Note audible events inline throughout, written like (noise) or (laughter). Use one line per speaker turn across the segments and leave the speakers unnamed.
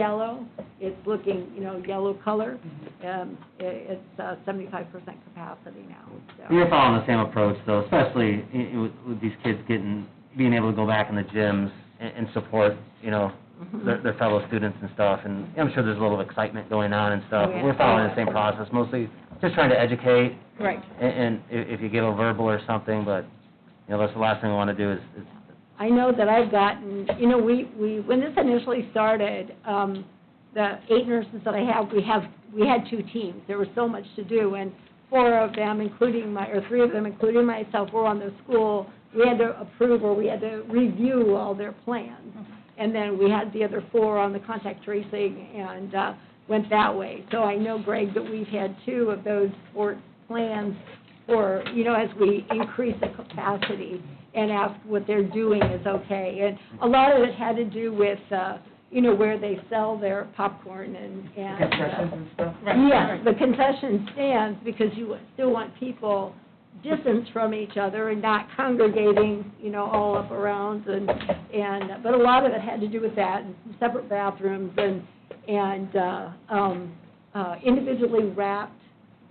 yellow, it's looking, you know, yellow color, um, i it's uh seventy-five percent capacity now, so.
We were following the same approach though, especially i- i- with, with these kids getting, being able to go back in the gyms and, and support, you know,
Mm-hmm.
their, their fellow students and stuff, and I'm sure there's a little excitement going on and stuff.
Oh, yeah.
We're following the same process, mostly just trying to educate,
Right.
and, and i- if you get a verbal or something, but, you know, that's the last thing we wanna do is, is,
I know that I've gotten, you know, we, we, when this initially started, um, the eight nurses that I have, we have, we had two teams. There was so much to do, and four of them, including my, or three of them, including myself, were on the school. We had to approve or we had to review all their plans. And then we had the other four on the contact tracing and, uh, went that way. So I know, Greg, that we've had two of those four plans for, you know, as we increase the capacity and ask what they're doing is okay. And a lot of it had to do with, uh, you know, where they sell their popcorn and, and. uh,
concessions and stuff?
Yes, the concession stands because you still want people distance from each other and not congregating, you know, all up around and, and, but a lot of it had to do with that, and some separate bathrooms and, and, uh, um, uh, individually wrapped,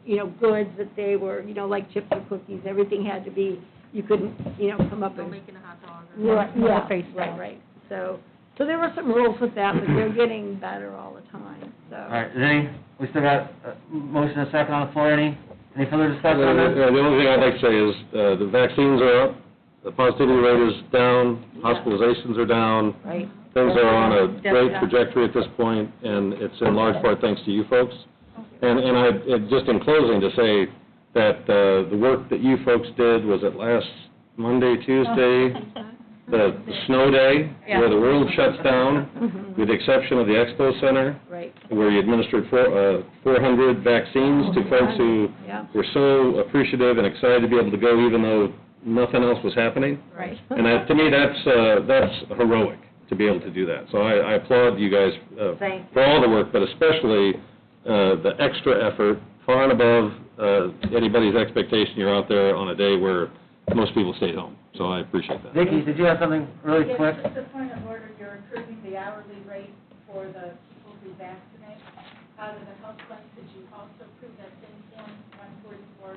you know, goods that they were, you know, like chips or cookies, everything had to be, you couldn't, you know, come up and
making a hot dog
Right,
More
yeah,
face
right,
down.
right. So, so there were some rules with that, but they're getting better all the time, so.
all right, is any, we still got a motion and a second on the floor, any, any further
Uh,
discussion on that?
The only thing I'd like to say is, uh, the vaccines are up, the positivity rate is down, hospitalizations are down,
Right.
things are on a
Yeah.
great trajectory at this point, and it's in large part thanks to you folks. And, and I, and just in closing, to say that uh, the work that you folks did, was it last Monday, Tuesday, the the snow day, where the world shuts down, with the exception of the expo center,
Right,
where you administered four, uh, 400 vaccines to folks who
yeah,
were so appreciative and excited to be able to go even though nothing else was happening.
right.
(laughs) And that, to me, that's, uh, that's heroic to be able to do that. So I I applaud you guys uh,
Thank
for all the work, but especially uh, the extra effort, far and above uh, anybody's expectation. You're out there on a day where most people stayed home, so I appreciate that.
Vicki, did you have something really quick?
Yes, just a point of order, you're approving the hourly rate for the people who vaccinate. Out of the health fund, could you also approve that same form, one forty-four,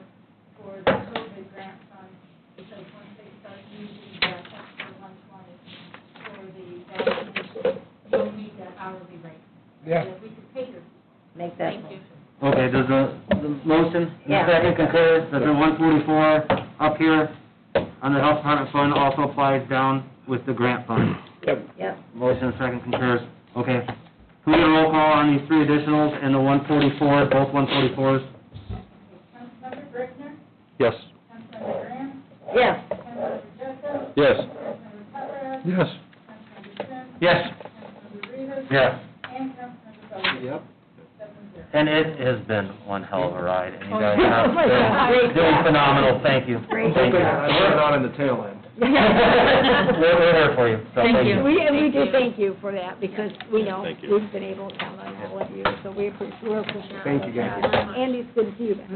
for the COVID grant fund? Because once they start using that extra one twenty for the vaccination, you'll need that hourly rate. Yeah. If we could pay your
Make that
Thank you.
Okay, does the, the motion, the
Yeah.
second concurs, that the one forty-four up here on the health department fund also applies down with the grant fund?
Yep.
Motion, second concurs, okay. Who we roll call on these three additionals and the one forty-four, both one forty-fours?
Councilmember Brickner,
Yes.
Councilmember Graham,
Yes.
Councilmember Joseph,
Yes.
Councilmember Papera,
Yes.
Councilmember Smith,
Yes.
Councilmember Rivas,
Yes.
and Councilmember Bowe.
Yep.
Seven zero.
And it has been one hell of a ride, and you guys
Oh, yeah.
have been doing phenomenal, thank you.
Great.
Thank you.
We're not in the tail
(laughs)
end.
We're, we're here for you, so thank you.
We, and we do thank you for that, because we know
Thank you.
we've been able to count on all of you, so we appreciate, we're appreciative.
Thank you, guys.
Andy, it's good to see you. back. (laughs)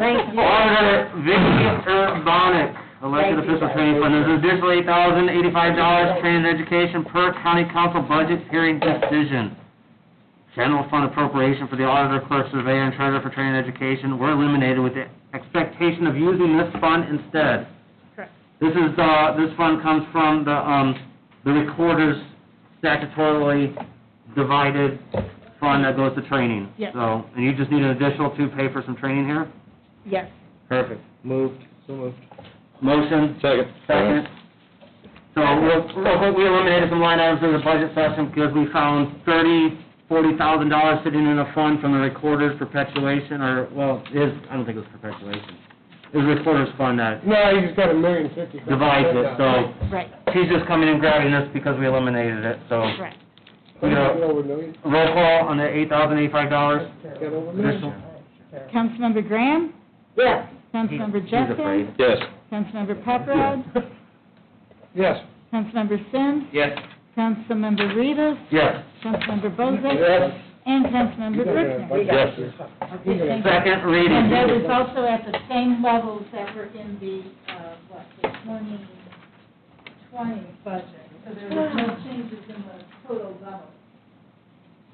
Thank you.
Auditor Vicki Urbonic, elected
Thank you,
official
guys.
training fund, there's an additional eight thousand eighty-five dollars training and education per county council budget hearing decision. General fund appropriation for the auditor, clerk, surveyor, and treasurer for training and education were eliminated with the expectation of using this fund instead.
Correct.
This is, uh, this fund comes from the, um, the recorder's statutorily divided fund that goes to training.
Yes.
So, and you just need an additional to pay for some training here?
Yes.
Perfect.
Moved, so moved.
Motion,
Second.
second. So real real quick, we eliminated some line items in the budget session because we found thirty, forty thousand dollars sitting in a fund from the recorder's perpetuation, or, well, is, I don't think it was perpetuation. It was recorder's fund that
No, you just got a million fifty.
divides it, so
Right,
she's just coming and grabbing this because we eliminated it, so.
right.
You know,
Over a million,
roll call on the eight thousand eighty-five dollars.
got over a
Additional.
million.
Councilmember Graham,
Yes.
Councilmember
He's
Justin,
afraid.
Yes.
Councilmember
(laughs)
Paparad,
Yes.
Councilmember Sims,
Yes.
Councilmember Rivas,
Yes.
Councilmember Bozak,
Yes.
and Councilmember Brickner.
Yes.
Okay, thank you.
Second reading.
And that was also at the same levels that were in the, uh, what, the 2020 budget. So there was no changes in the total level.